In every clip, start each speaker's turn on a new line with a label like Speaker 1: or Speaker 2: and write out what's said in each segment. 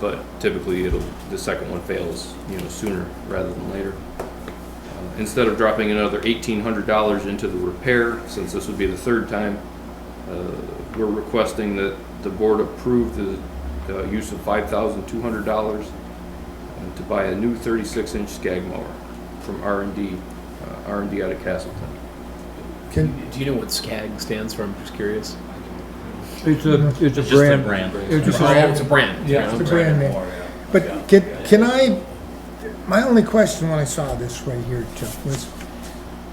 Speaker 1: but typically it'll, the second one fails, you know, sooner rather than later. Uh, Instead of dropping another eighteen hundred dollars into the repair, since this would be the third time, uh, we're requesting that the board approve the, uh use of five thousand two hundred dollars to buy a new thirty-six inch skag mower from R and D, uh, R and D out of Castleton.
Speaker 2: Can,
Speaker 3: Do you know what SCAG stands for? I'm just curious.
Speaker 4: It's a, it's a
Speaker 5: It's just a
Speaker 4: brand.
Speaker 5: brand.
Speaker 4: It's just
Speaker 3: Oh,
Speaker 4: a-
Speaker 3: it's a brand.
Speaker 4: Yeah,
Speaker 2: it's a brand name. But can, can I, my only question when I saw this right here, Chuck, was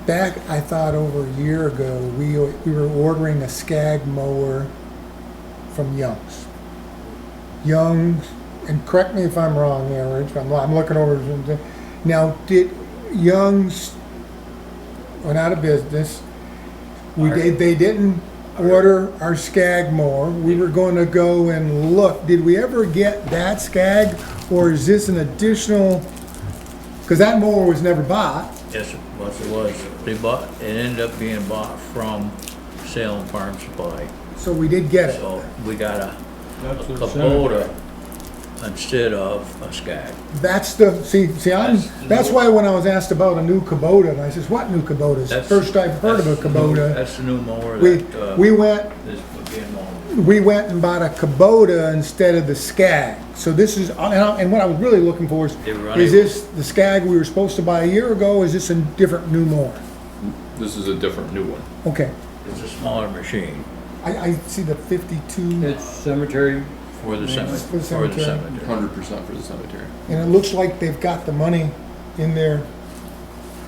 Speaker 2: back, I thought over a year ago, we, we were ordering a skag mower from Young's. Young's, and correct me if I'm wrong there, Rich, I'm, I'm looking over, something. now, did Young's went out of business? We, they, they didn't order our skag mower. We were gonna go and look. Did we ever get that skag? Or is this an additional, cause that mower was never bought.
Speaker 5: Yes, yes, it was. They bought, it ended up being bought from Salem Farm Supply.
Speaker 2: So we did get it.
Speaker 5: So we got a a
Speaker 4: That's a center.
Speaker 5: Kubota instead of a Skag.
Speaker 2: That's the, see, see, I'm,
Speaker 5: That's-
Speaker 2: that's why when I was asked about a new Kubota, and I says, what new Kubota? It's the
Speaker 5: That's-
Speaker 2: First I've heard of a
Speaker 5: that's the new-
Speaker 2: Kubota.
Speaker 5: That's the new mower
Speaker 2: We,
Speaker 5: that, uh,
Speaker 2: we went,
Speaker 5: is being owned.
Speaker 2: we went and bought a Kubota instead of the Skag. So this is, and I- and what I was really looking for is,
Speaker 5: They were
Speaker 2: is
Speaker 5: running-
Speaker 2: this the Skag we were supposed to buy a year ago? Is this a different new mower?
Speaker 1: This is a different new one.
Speaker 2: Okay,
Speaker 5: It's a smaller machine
Speaker 2: I, I see the fifty-two,
Speaker 4: It's cemetery.
Speaker 5: for the
Speaker 2: It's for
Speaker 5: cemetery,
Speaker 2: the
Speaker 5: for the
Speaker 2: cemetery.
Speaker 5: cemetery.
Speaker 1: Hundred percent for the cemetery.
Speaker 2: and it looks like they've got the money in there,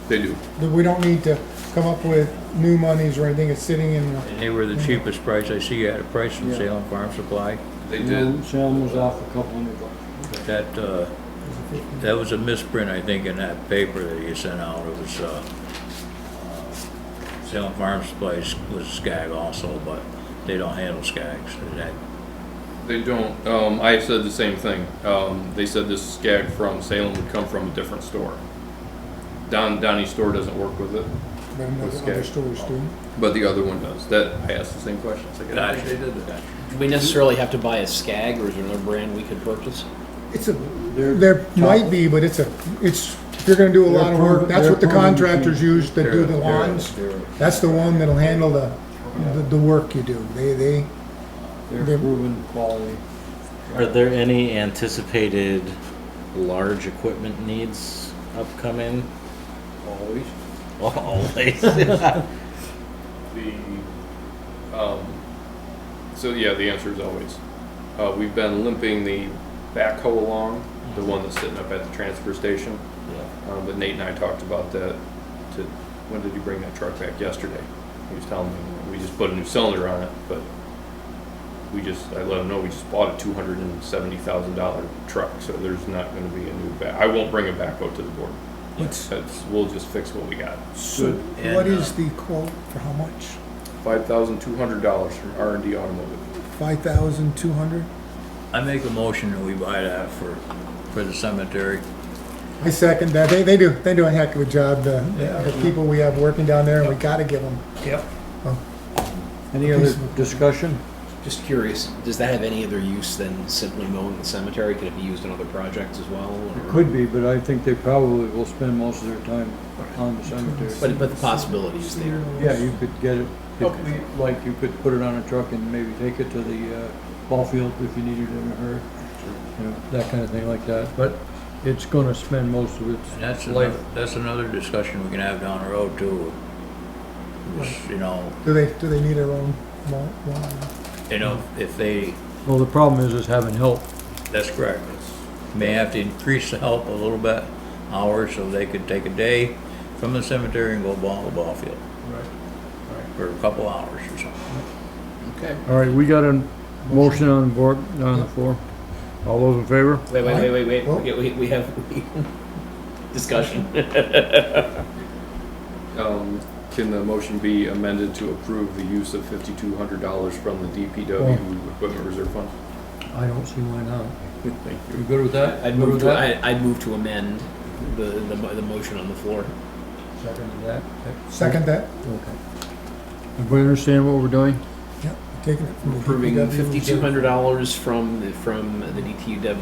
Speaker 1: They do.
Speaker 2: that we don't need to come up with new monies or anything, it's sitting in the,
Speaker 5: And they were the cheapest price I see at a price from
Speaker 4: Yeah.
Speaker 5: Salem Farm Supply.
Speaker 1: They did.
Speaker 4: Shalom was off a couple hundred bucks.
Speaker 5: That, uh, that was a misprint, I think, in that paper that you sent out. It was, uh, uh, Salem Farm Supply was Skag also, but they don't handle Skags. That-
Speaker 1: They don't. Um, I said the same thing. Um, they said this skag from Salem would come from a different store. Don Donnie's store doesn't work with it,
Speaker 2: but another-
Speaker 1: Skag.
Speaker 2: other stores do.
Speaker 1: but the other one does. That I asked the same question. It's like, I don't think they did that.
Speaker 3: Do we necessarily have to buy a SCAG or is there another brand we could purchase?
Speaker 2: It's a, there might be, but it's a, it's, if you're gonna do a lot of work, that's what the contractors use that do the lawns. That's the one that'll handle the, the, the work you do, they, they,
Speaker 4: They're
Speaker 2: They're-
Speaker 4: proven quality.
Speaker 6: Are there any anticipated large equipment needs upcoming?
Speaker 4: Always.
Speaker 6: Always.
Speaker 1: The um, so yeah, the answer is always. Uh, we've been limping the backhoe along, the one that's sitting up at the transfer station. Um, but Nate and I talked about that. To when did you bring that truck back yesterday? He was telling me we just put a new cylinder on it, but we just I let him know we just bought a two hundred and seventy thousand dollar truck, so there's not going to be a new back. I won't bring a backhoe to the board.
Speaker 2: What's-
Speaker 1: That's, we'll just fix what we got.
Speaker 2: so
Speaker 5: And,
Speaker 2: what
Speaker 5: uh,
Speaker 2: is the quote for how much?
Speaker 1: Five thousand two hundred dollars from R and D Automotive.
Speaker 2: Five thousand two hundred?
Speaker 5: I make a motion that we buy that for, for the cemetery.
Speaker 2: I second that. They, they do, they do a heck of a job, the, the the people we have working down there, and we gotta give them.
Speaker 5: Yep.
Speaker 4: Any other discussion?
Speaker 3: Just curious, does that have any other use than simply mowing the cemetery? Could it be used in other projects as well?
Speaker 4: It
Speaker 3: or-
Speaker 4: could be, but I think they probably will spend most of their time on the cemetery.
Speaker 3: But, but the possibility is there.
Speaker 4: Yeah, you could get it, if- like you could put it on a truck and maybe take it to the uh, ball field if you needed it in a hurry. You know, that kind of thing like that, but it's gonna spend most of its
Speaker 5: And that's
Speaker 4: life.
Speaker 5: another, that's another discussion we can have down the road too. Just, You know,
Speaker 2: Do they, do they need their own lawn? lawn?
Speaker 5: you know, if they,
Speaker 4: Well, the problem is, is having help.
Speaker 5: that's correct. May have to increase the help a little bit, hours, so they could take a day from the cemetery and go ball the ball field. Right. For a couple hours or something.
Speaker 1: Okay.
Speaker 4: All right, we got a motion on the board, on the floor. All those in favor?
Speaker 3: Wait, wait, wait, wait,
Speaker 2: Well-
Speaker 3: wait. We, we, we have discussion.
Speaker 1: Um, can the motion be amended to approve the use of fifty-two hundred dollars from the DPW Equipment Reserve Fund?
Speaker 4: I don't see why not.
Speaker 1: Thank you.
Speaker 4: You good with that?
Speaker 3: I'd
Speaker 4: Good
Speaker 3: move
Speaker 4: with
Speaker 3: to,
Speaker 4: that?
Speaker 3: I, I'd move to amend the, the, mo- the motion on the floor.
Speaker 4: Second to that.
Speaker 2: Second that?
Speaker 4: Okay. Everybody understand what we're doing?
Speaker 2: Yep, taking it from the
Speaker 3: Approving
Speaker 2: DPW.
Speaker 3: fifty-two hundred dollars from, the- from the DTW